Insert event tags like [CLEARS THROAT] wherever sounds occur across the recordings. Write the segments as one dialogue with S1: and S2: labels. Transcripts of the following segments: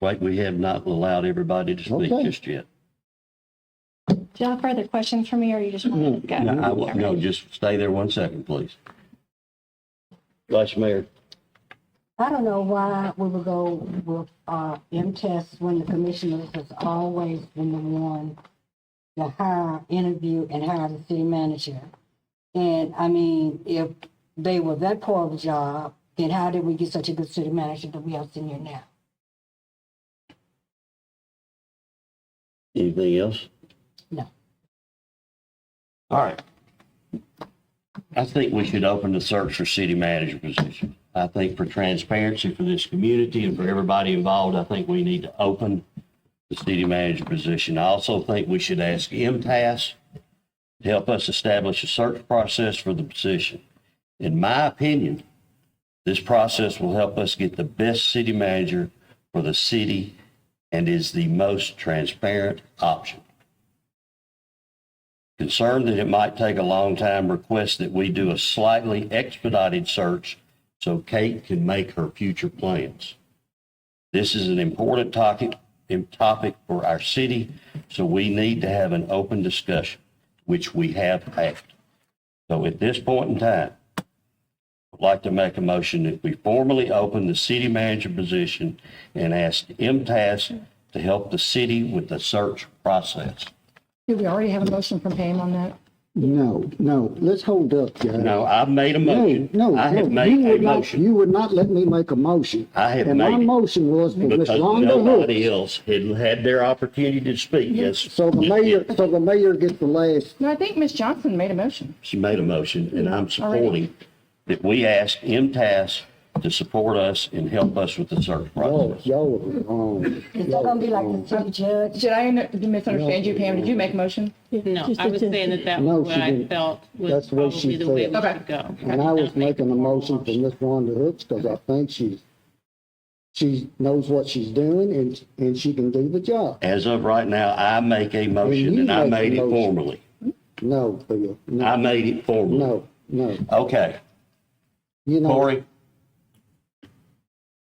S1: Like we have not allowed everybody to speak
S2: Okay.
S1: just yet.
S3: Do you have further questions for me or you just want to go?
S1: No, Mm-hmm. I wa- no, just stay there one second, please. Vice Mayor,
S4: I don't know why we would go with, uh, M-Test when the commissioners has always been the one to hire, interview, and hire the city manager. And, I mean, if they were that poor of a job, then how did we get such a good city manager that we have sitting here now?
S1: anything else?
S4: No.
S1: All right. I think we should open the search for city manager position. I think for transparency for this community and for everybody involved, I think we need to open the city manager position. I also think we should ask MTS to help us establish a search process for the position. In my opinion, This process will help us get the best city manager for the city and is the most transparent option. Concerned that it might take a long time, request that we do a slightly expedited search so Kate can make her future plans. This is an important topic, im- topic for our city, so we need to have an open discussion, which we have had. So at this point in time, would like to make a motion that we formally open the city manager position and ask MTS to help the city with the search process.
S5: Do we already have a motion from Pam on that?
S2: No, no, let's hold up, guys.
S1: No, I've made a motion.
S2: No,
S1: I have
S2: no, you
S1: made
S2: would
S1: a
S2: not-
S1: motion.
S2: You would not let me make a motion.
S1: I have
S2: And my
S1: made it.
S2: motion was for Ms.
S1: Because
S2: Rhonda Hooks.
S1: nobody else had had their opportunity to speak, yes.
S2: So the mayor, so the mayor gets the last,
S5: No, I think Ms. Johnson made a motion.
S1: She made a motion, and I'm
S5: Already.
S1: supporting that we ask MTS to support us and help us with the search
S2: oh,
S1: process.
S2: y'all are um, wrong.
S4: Is that gonna be like the city judge?
S5: Did I n- misunderstand you, Pam? Did you make a motion?
S6: No, I was saying that that
S2: No,
S6: was what
S2: she
S6: I
S2: didn't.
S6: felt was
S2: That's what she
S6: probably the way we
S2: said.
S5: Okay.
S6: should go.
S2: um, And I was making a motion for Ms. Rhonda Hooks because I think she, she knows what she's doing and, and she can do the job.
S1: As of right now, I make a motion,
S2: you
S1: and I
S2: make a
S1: made it
S2: motion.
S1: formally.
S2: No, Bill,
S1: I
S2: no,
S1: made it formally.
S2: no, no.
S1: Okay,
S2: You know,
S1: Corey?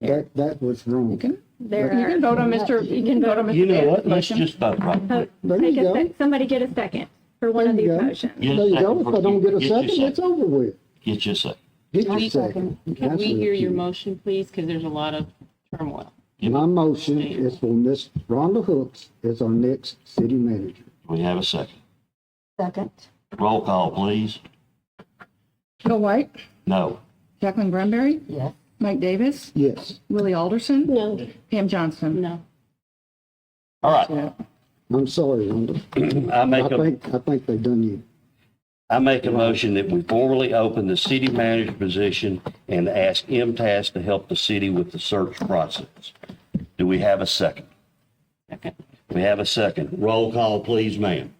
S2: that, that was
S5: You
S2: wrong.
S5: can, you
S7: There
S5: can
S7: are,
S5: vote on Mr., you can vote on
S1: You
S5: Mr.
S1: know
S5: Barrett's
S1: what, let's
S5: motion.
S1: just vote right quick.
S2: There
S7: Take
S2: you
S7: a
S2: go.
S7: sec- somebody get a second for one of
S2: There you
S7: these
S2: go.
S7: motions.
S1: Get
S2: There
S1: a
S2: you go.
S1: second
S2: If I don't get a
S1: your
S2: second, it's over with.
S1: Get your second.
S2: Get
S4: Can we-
S2: your second.
S6: Can
S2: That's
S6: we
S2: what
S6: hear your
S2: you-
S6: motion, please? Because there's a lot of turmoil.
S2: My motion is for Miss Rhonda Hooks as our next city manager.
S1: We have a second.
S4: Second.
S1: Roll call, please.
S5: Bill White,
S1: No.
S5: Jacqueline Granberry,
S4: Yes.
S5: Mike Davis,
S2: Yes,
S5: Willie Alderson,
S7: No,
S5: Pam Johnson.
S6: No.
S1: All right,
S5: Yeah.
S2: I'm sorry, Rhonda.
S1: [CLEARS THROAT] I
S2: I
S1: make a,
S2: think, I think they done you.
S1: I make a motion that we formally open the city manager position and ask MTS to help the city with the search process. Do we have a second?
S6: Second.
S1: We have a second. Roll call, please, ma'am.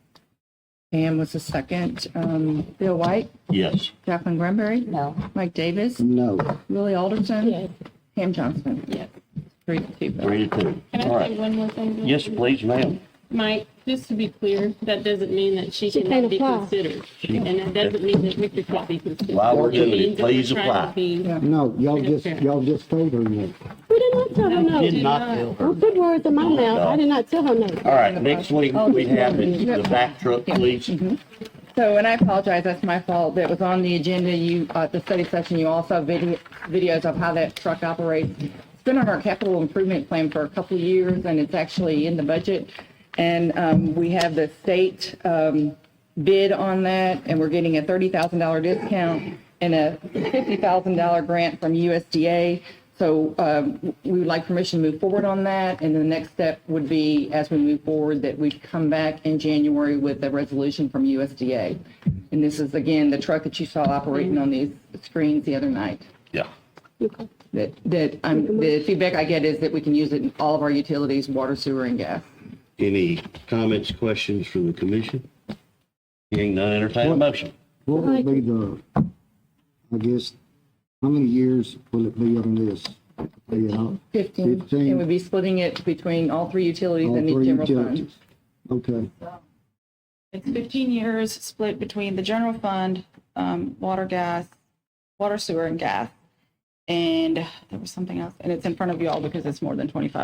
S5: Pam was the second. Um, Bill White,
S1: Yes.
S5: Jacqueline Granberry,
S4: No.
S5: Mike Davis,
S2: No,
S5: Willie
S7: yeah.
S5: Alderson, Pam Johnson.
S6: Yes.
S5: Three to two votes.
S1: Three to two.
S6: Can
S1: All
S6: I say
S1: right.
S6: one more thing? Bill?
S1: Yes, please, ma'am.
S6: Mike, just to be clear, that doesn't mean that she
S7: She can't
S6: cannot be
S7: apply.
S6: considered. And that doesn't mean that Victor can't be considered.
S1: While we're
S6: It
S1: doing it,
S6: means that we're
S1: please
S6: trying to
S1: apply.
S6: be-
S5: Yeah.
S2: no, y'all just, y'all just told her no.
S7: We did not tell her
S1: Did
S7: no.
S1: not tell her.
S7: Don't put words in my mouth. I did not tell her no.
S1: All right, next week, we have the the back truck, please.
S5: So, and I apologize, that's my fault. That was on the agenda, you, uh, the study session, you also video, videos of how that truck operates. It's been on our capital improvement plan for a couple of years and it's actually in the budget. And, um, we have the state, um, bid on that and we're getting a thirty thousand dollar discount and a fifty thousand dollar grant from USDA. So, um, we would like permission to move forward on that. And the next step would be, as we move forward, that we come back in January with a resolution from USDA. And this is, again, the truck that you saw operating on these screens the other night.
S1: Yeah.
S7: Okay.
S5: That, that, um, the feedback I get is that we can use it in all of our utilities, water, sewer, and gas.
S1: Any comments, questions from the commission? Hearing none, entertain a motion.
S2: What would be the, I guess, how many years will it be on this? Yeah,
S5: Fifteen.
S2: Fifteen.
S5: And we'd be splitting it between all three utilities
S2: all
S5: and the
S2: three
S5: general fund.
S2: utilities. Okay,
S8: It's 15 years split between the general fund, um, water, gas, water, sewer, and gas. And there was something else, and it's in front of you all because it's more than 25